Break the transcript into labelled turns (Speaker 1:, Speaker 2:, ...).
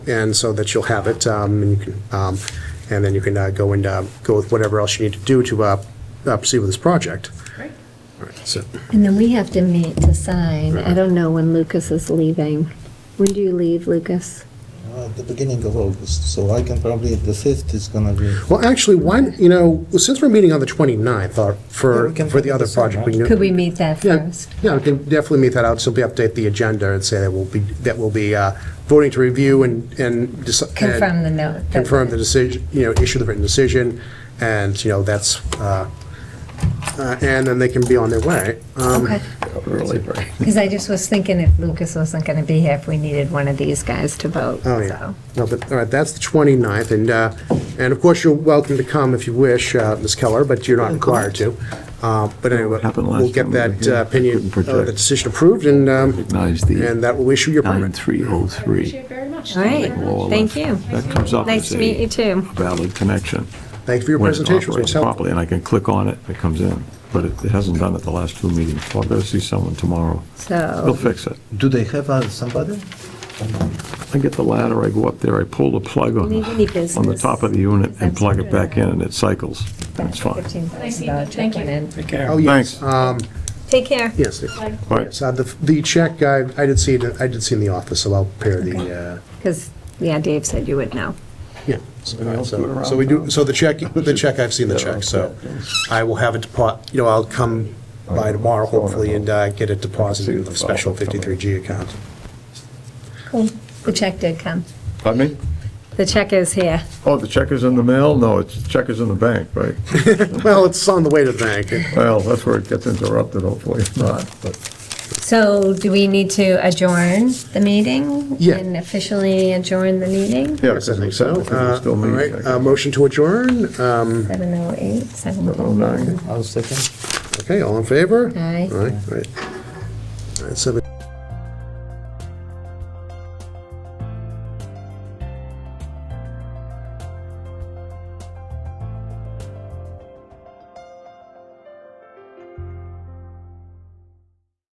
Speaker 1: and so that you'll have it, um, and you can, um, and then you can uh, go and, uh, go with whatever else you need to do to uh, uh, proceed with this project.
Speaker 2: Great.
Speaker 1: All right, so,
Speaker 3: And then we have to meet to sign. I don't know when Lucas is leaving. When do you leave, Lucas?
Speaker 4: Uh, At the beginning of August, so I can probably, the 5th is gonna be,
Speaker 1: Well, actually, why, you know, since we're meeting on the 29th uh,
Speaker 4: Yeah,
Speaker 1: for,
Speaker 4: we can
Speaker 1: for the other
Speaker 4: decide
Speaker 1: project. we
Speaker 4: that.
Speaker 1: knew-
Speaker 3: Could we meet that
Speaker 1: Yeah,
Speaker 3: first?
Speaker 1: yeah, we can definitely meet that out, so we update the agenda and say that we'll be, that we'll be uh, voting to review and, and. deci- and
Speaker 3: Confirm the note. that-
Speaker 1: Confirm the decision, you know, issue the written decision, and, you know, that's, uh, uh, and then they can be on their way. Um,
Speaker 3: Okay. Because I just was thinking if Lucas wasn't going to be here, if we needed one of these guys to vote,
Speaker 1: Oh, yeah.
Speaker 3: so.
Speaker 1: No, but, all right, that's the 29th, and, uh, and of course, you're welcome to come if you wish, uh, Ms. Keller, but you're not required to. Uh, But anyway,
Speaker 5: happened last
Speaker 1: we'll get
Speaker 5: time we were
Speaker 1: that
Speaker 5: here.
Speaker 1: uh, opinion,
Speaker 5: Couldn't
Speaker 1: uh,
Speaker 5: project.
Speaker 1: the decision approved, and, um,
Speaker 5: Recognize the
Speaker 1: and that will issue your permit.
Speaker 5: 9303.
Speaker 2: Appreciate it very much.
Speaker 3: All
Speaker 2: Thank you
Speaker 3: right.
Speaker 2: very much.
Speaker 3: Thank you.
Speaker 5: That comes up
Speaker 3: Nice
Speaker 5: as
Speaker 3: to meet you
Speaker 5: a
Speaker 3: too.
Speaker 5: valid connection.
Speaker 1: Thank you for your
Speaker 5: when it's
Speaker 1: presentation, it was
Speaker 5: operating
Speaker 1: helpful.
Speaker 5: Properly, and I can click on it, it comes in, but it it hasn't done it the last two meetings, so I'll go see someone tomorrow. He'll
Speaker 1: Oh.
Speaker 3: So,
Speaker 5: fix it.
Speaker 4: do they have uh, somebody?
Speaker 5: I get the ladder, I go up there, I pull the plug on,
Speaker 3: Need any
Speaker 5: the- on the
Speaker 3: business?
Speaker 5: top of the unit and plug it back in, and it cycles.
Speaker 3: that's
Speaker 5: That's fine.
Speaker 3: $15,000 check
Speaker 2: Thank
Speaker 3: went
Speaker 2: you.
Speaker 3: in.
Speaker 1: Oh, yes, um,
Speaker 3: Take care.
Speaker 1: yes.
Speaker 2: Bye.
Speaker 5: Right.
Speaker 1: So the, the check, I, I did see, it. I did see in the office, so I'll prepare the, uh,
Speaker 3: Because, yeah, Dave said you would know.
Speaker 1: yeah. So so we do, so the check, the check, I've seen the check, so I will have it depo, you know, I'll come by tomorrow hopefully and uh, get it deposited in the special 53G account.
Speaker 3: Cool. The check did come.
Speaker 5: Pardon me?
Speaker 3: The check is here.
Speaker 5: Oh, the check is in the mail? No, it's, check is in the bank, right?
Speaker 1: Well, it's on the way to the bank.
Speaker 5: Well, that's where it gets interrupted, hopefully it's not, but.
Speaker 3: So do we need to adjourn the meeting?
Speaker 1: Yeah.
Speaker 3: And officially adjourn the meeting?
Speaker 5: Yeah,
Speaker 1: Yes, I think so. Uh, All right, uh, motion to adjourn. Um,
Speaker 3: 708, 709.
Speaker 5: Oh, no.
Speaker 4: I'll second.
Speaker 1: Okay, all in favor?
Speaker 3: Aye.
Speaker 1: All right, all right. All right, seven.